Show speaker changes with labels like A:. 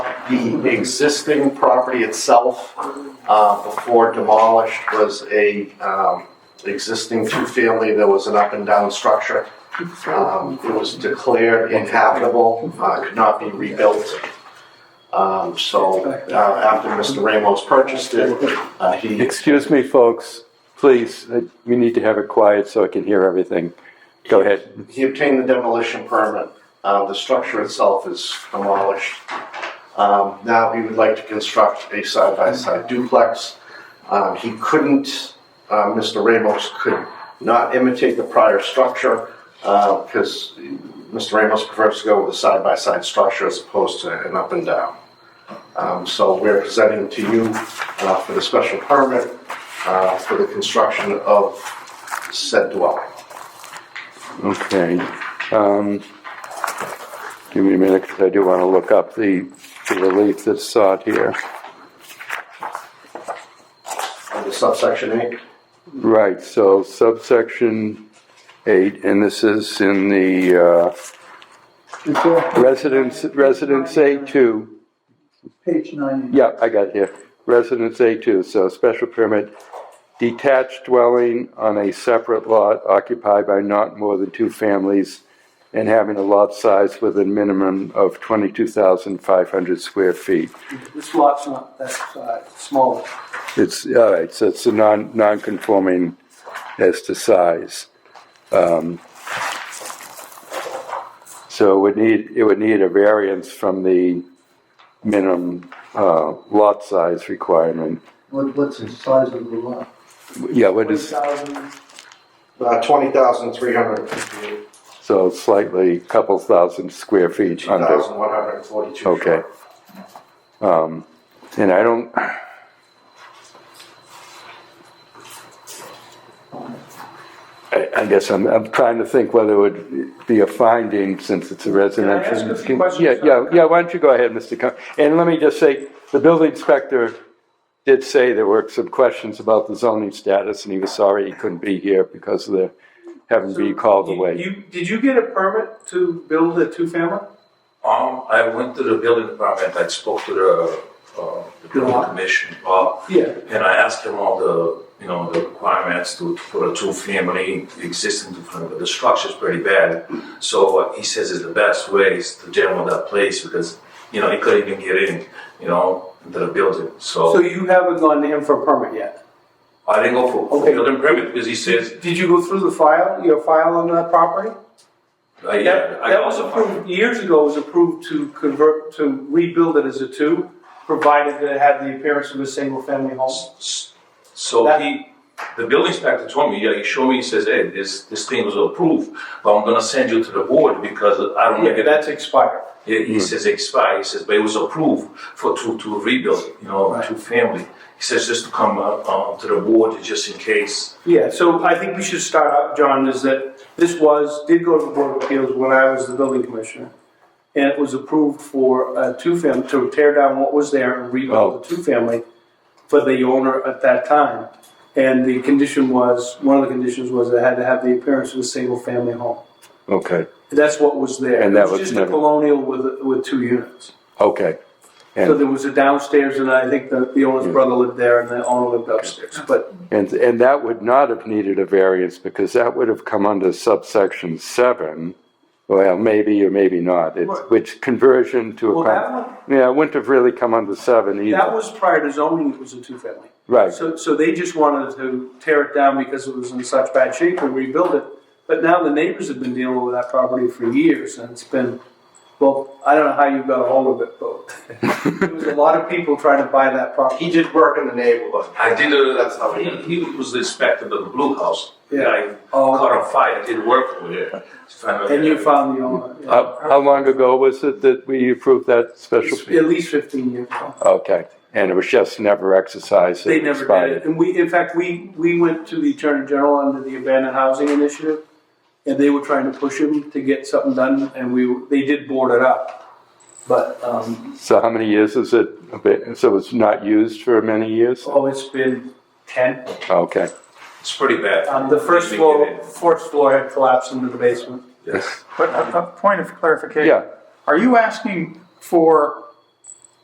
A: The existing property itself, uh, before demolished, was a, um, existing two-family. There was an up-and-down structure. Um, It was declared inhabitable, uh, could not be rebuilt. Um, So uh, after Mr. Ramos purchased it, uh, he
B: Excuse me, folks, please, uh, we need to have it quiet so I can hear everything. Go ahead.
A: he obtained the demolition permit. Uh, the structure itself is demolished. Um, now he would like to construct a side-by-side duplex. Um, he couldn't, uh, Mr. Ramos could not imitate the prior structure, uh, because Mr. Ramos prefers to go with a side-by-side structure as opposed to an up and down. Um, so we're presenting to you, uh, for the special permit, uh, for the construction of said dwelling.
B: Okay. Um, Give me a minute, because I do want to look up the the relief that's sought here.
A: Under subsection eight,
B: Right, so subsection eight, and this is in the uh, residence, residence A two.
C: Page ninety.
B: Yeah, I got it here. Residence A2, so special permit, detached dwelling on a separate lot occupied by not more than two families and having a lot size with a minimum of 22,500 square feet.
C: This lot's not that size, it's smaller.
B: It's, all right, so it's a non, non-conforming as to size. Um, So it would need, it would need a variance from the minimum uh, lot size requirement.
C: What, what's the size of the lot?
B: Yeah, what is,
A: uh, twenty thousand three hundred fifty-eight,
B: so slightly, couple thousand square feet
A: two
B: under.
A: thousand one hundred forty-two.
B: Okay. Um, and I don't. I, I guess I'm, I'm trying to think whether it would be a finding since it's a residential.
D: ask a few questions?
B: Yeah, yeah, yeah, why don't you go ahead, Mr. Con, and let me just say, the building inspector did say there were some questions about the zoning status and he was sorry he couldn't be here because of the, having to be called
D: You-
B: away.
D: You, did you get a permit to build a two-family?
E: Um, I went to the building department, I spoke to the, uh, the building commission, uh,
D: Yeah.
E: and I asked them all the, you know, the requirements to, for a two-family existing, two-family, but the structure's pretty bad. So he says it's the best way is to demo that place because, you know, he couldn't even get in, you know, into the building,
D: So
E: so
D: you haven't gone to him for a permit yet?
E: I didn't go for, for
D: Okay.
E: building permit because he says,
D: Did you go through the file, your file on that property?
E: uh, yeah,
D: That,
E: I
D: that was
E: also.
D: approved, years ago, it was approved to convert, to rebuild it as a two, provided that it had the appearance of a single-family home.
E: So
D: That-
E: he, the building inspector told me, yeah, he showed me, he says, hey, this, this thing was approved, but I'm gonna send you to the board because I don't make
D: Yeah,
E: it.
D: that's expired.
E: He, he says expire. He says, but it was approved for to to rebuild, you know, to family. He says just to come uh, uh, to the board just in case.
D: Yeah, so I think we should start out, John, is that this was, did go to the Board of Appeals when I was the building commissioner. And it was approved for a two-family, to tear down what was there and rebuild a
B: Oh.
D: two-family for the owner at that time. And the condition was, one of the conditions was it had to have the appearance of a single-family home.
B: Okay,
D: That's what was there.
B: And that was
D: It was just a
B: never-
D: colonial with, with two units.
B: okay.
D: So
B: And-
D: there was a downstairs and I think the, the owner's brother lived there and the owner lived upstairs, but
B: And, and that would not have needed a variance because that would have come under subsection seven. Well, maybe or maybe not, it's,
D: Right.
B: which conversion to a.
D: Well, that
B: con- Yeah, it wouldn't have really come under seven
D: That
B: either.
D: was prior to zoning, it was a two-family.
B: Right.
D: So, so they just wanted to tear it down because it was in such bad shape and rebuild it. But now the neighbors have been dealing with that property for years and it's been, well, I don't know how you got a hold of it, but there was a lot of people trying to buy that property.
A: He did work in the neighborhood.
E: I did uh, a,
A: That's how he
E: he, he was the inspector of the blue house.
D: Yeah.
E: I
D: Oh.
E: caught on fire. I did work with it. Found out-
D: And you found the owner. yeah.
B: How, Uh, how long ago was it that we approved that special?
D: It's At least fifteen years ago.
B: Okay, and it was just never exercised.
D: They never did it.
B: expired.
D: And we, in fact, we, we went to the Attorney General under the Abandoned Housing Initiative, and they were trying to push him to get something done, and we, they did board it up. But, um,
B: So how many years is it? a bit- So it's not used for many years?
D: oh, it's been ten.
B: Okay,
E: It's pretty bad.
D: Um, the first
E: Didn't
D: floor,
E: get in.
D: fourth floor had collapsed into the basement.
E: Yes.
F: But a, a point of clarification.
B: yeah,
F: Are you asking for